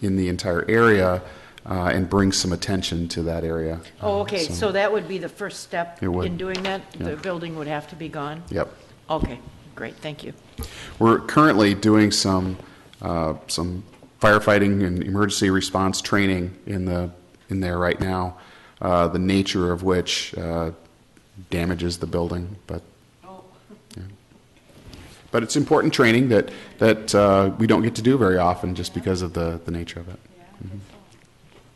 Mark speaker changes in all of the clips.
Speaker 1: in the entire area uh, and bring some attention to that area. Uh,
Speaker 2: Oh,
Speaker 3: Uh,
Speaker 2: okay, so that would be the first step
Speaker 1: It would.
Speaker 2: in doing that?
Speaker 1: Yeah.
Speaker 2: The building would have to be gone?
Speaker 1: Yep.
Speaker 2: Okay, great, thank you.
Speaker 1: We're currently doing some, uh, some firefighting and emergency response training in the, in there right now, uh, the nature of which uh, damages the building, but.
Speaker 2: Oh.
Speaker 1: Yeah. But it's important training that, that uh, we don't get to do very often just because of the, the nature of it.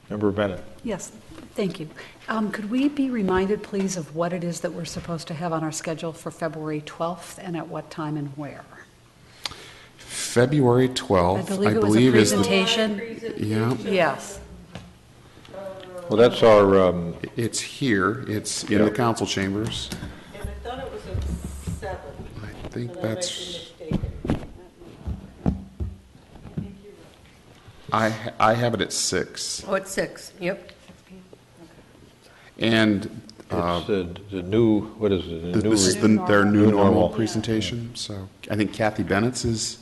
Speaker 4: Member Bennett?
Speaker 5: Yes, thank you. Um, Could we be reminded, please, of what it is that we're supposed to have on our schedule for February 12th, and at what time and where?
Speaker 1: February 12th,
Speaker 5: I
Speaker 1: I
Speaker 5: believe
Speaker 1: believe,
Speaker 5: it was a
Speaker 1: is the.
Speaker 5: presentation.
Speaker 1: Yeah,
Speaker 5: Yes.
Speaker 4: Well, that's our, um,
Speaker 1: it's here. It's in the council chambers.
Speaker 3: And I thought it was a seven.
Speaker 1: I think
Speaker 3: but I might be
Speaker 1: that's.
Speaker 3: mistaken.
Speaker 1: I I have it at six.
Speaker 3: Oh, it's six, yep.
Speaker 1: And uh,
Speaker 4: it's the the new, what is it? the new
Speaker 1: this is
Speaker 4: re-
Speaker 1: the, their new
Speaker 4: New
Speaker 1: normal
Speaker 4: normal.
Speaker 1: presentation. So I think Kathy Bennett's is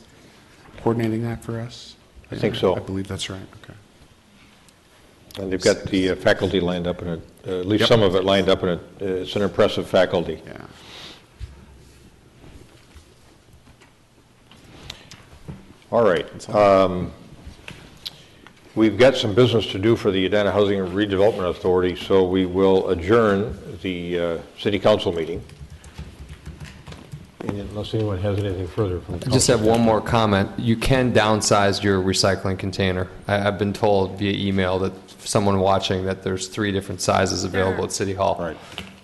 Speaker 1: coordinating that for us.
Speaker 4: I think so.
Speaker 1: I believe that's right. Okay.
Speaker 4: And they've got the uh, faculty lined up in it, uh, at least some of it lined up in it. Uh, It's an impressive faculty.
Speaker 1: Yeah.
Speaker 4: All right. um, We've got some business to do for the Edina Housing and Redevelopment Authority, so we will adjourn the uh, city council meeting. And Unless anyone has anything further from the
Speaker 6: I
Speaker 4: council.
Speaker 6: just have one more comment. You can downsize your recycling container. I, I've been told via email that someone watching that there's three different sizes available at City Hall.
Speaker 4: All right.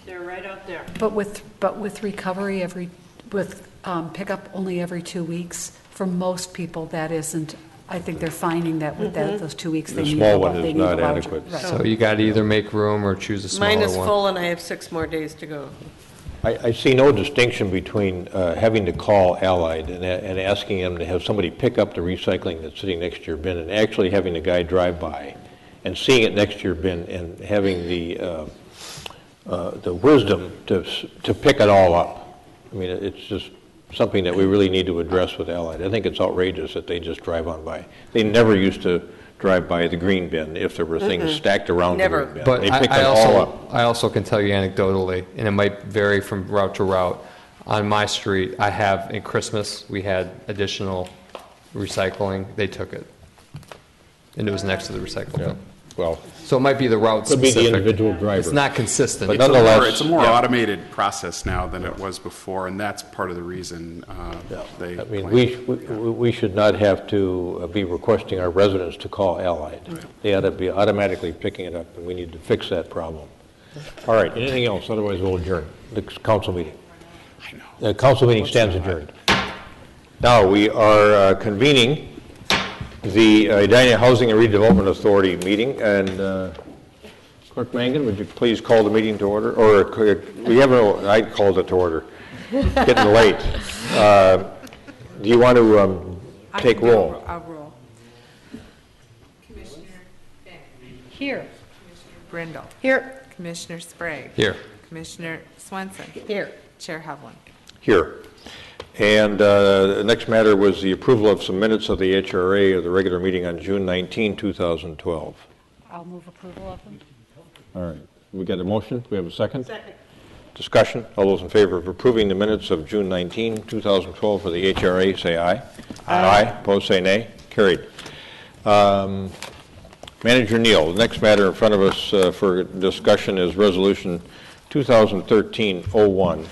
Speaker 2: They're right out there.
Speaker 5: But with, but with recovery every, with um, pickup only every two weeks, for most people, that isn't, I think they're finding that with that, those two weeks, they
Speaker 4: The
Speaker 5: need
Speaker 4: small
Speaker 5: a
Speaker 4: one
Speaker 5: lot-
Speaker 4: is
Speaker 5: they need a
Speaker 4: not
Speaker 5: larger-
Speaker 4: adequate.
Speaker 5: right.
Speaker 6: So you got to either make room or choose a smaller
Speaker 3: Mine is
Speaker 6: one.
Speaker 3: full and I have six more days to go.
Speaker 4: I, I see no distinction between uh, having to call Allied and, a- and asking them to have somebody pick up the recycling that's sitting next to your bin and actually having the guy drive by and seeing it next to your bin and having the, uh, uh, the wisdom to, s- to pick it all up. I mean, it's just something that we really need to address with Allied. I think it's outrageous that they just drive on by. They never used to drive by the green bin if there were things stacked around the
Speaker 3: Never.
Speaker 4: green bin.
Speaker 6: But
Speaker 4: They
Speaker 6: I,
Speaker 4: pick
Speaker 6: I
Speaker 4: them all up.
Speaker 6: also, I also can tell you anecdotally, and it might vary from route to route. On my street, I have, in Christmas, we had additional recycling. They took it. And it was next to the recycle bin.
Speaker 4: Well,
Speaker 6: So it might be the route
Speaker 4: could be
Speaker 6: specific.
Speaker 4: the individual driver.
Speaker 6: It's not consistent.
Speaker 4: But
Speaker 6: It's a-
Speaker 4: nonetheless-
Speaker 1: Or It's a more
Speaker 4: Yeah.
Speaker 1: automated process now than it was before, and that's part of the reason uh, they.
Speaker 4: I mean,
Speaker 1: claim-
Speaker 4: we, we- we should not have to uh, be requesting our residents to call Allied. They ought to be automatically picking it up, and we need to fix that problem. All right, anything else? Otherwise, we'll adjourn the council meeting. The council meeting stands adjourned. Now, we are uh, convening the uh, Edina Housing and Redevelopment Authority meeting, and uh, Clerk Mangan, would you please call the meeting to order? Or, uh, we have, no- I called it to order. Getting late. Uh, Do you want to um, take roll?
Speaker 3: I'll roll.
Speaker 5: Here.
Speaker 7: Brindle.
Speaker 2: Here,
Speaker 7: Commissioner Sprague.
Speaker 6: Here.
Speaker 7: Commissioner Swenson.
Speaker 3: Here.
Speaker 7: Chair Havlin.
Speaker 4: Here. And uh, the next matter was the approval of some minutes of the HRA of the regular meeting on June 19, 2012.
Speaker 5: I'll move approval of them.
Speaker 4: All right. We got a motion? We have a second? Second. Discussion? All those in favor of approving the minutes of June 19, 2012 for the HRA, say aye. Aye. Opposed, say nay. Carried. Um, Manager Neal, the next matter in front of us uh, for discussion is Resolution 2013-01,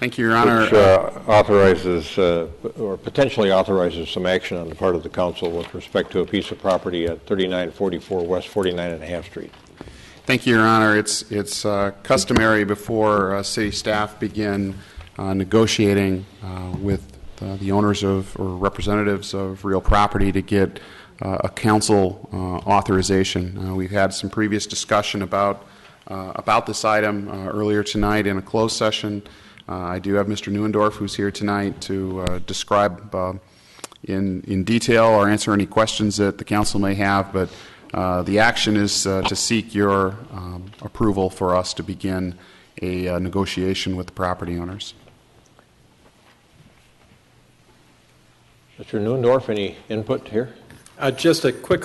Speaker 1: Thank you, Your Honor.
Speaker 4: which uh, authorizes, uh, or potentially authorizes some action on the part of the council with respect to a piece of property at 3944 West 49 and a half Street.
Speaker 1: Thank you, Your Honor. It's, it's uh, customary before uh, city staff begin uh, negotiating uh, with uh, the owners of, or representatives of real property to get uh, a council uh, authorization. Uh, We've had some previous discussion about, uh, about this item uh, earlier tonight in a closed session. Uh, I do have Mr. Neuendorf, who's here tonight, to uh, describe uh, in, in detail or answer any questions that the council may have, but uh, the action is uh, to seek your um, approval for us to begin a uh, negotiation with the property owners.
Speaker 4: Mr. Newendorf, any input here?
Speaker 8: Uh, Just a quick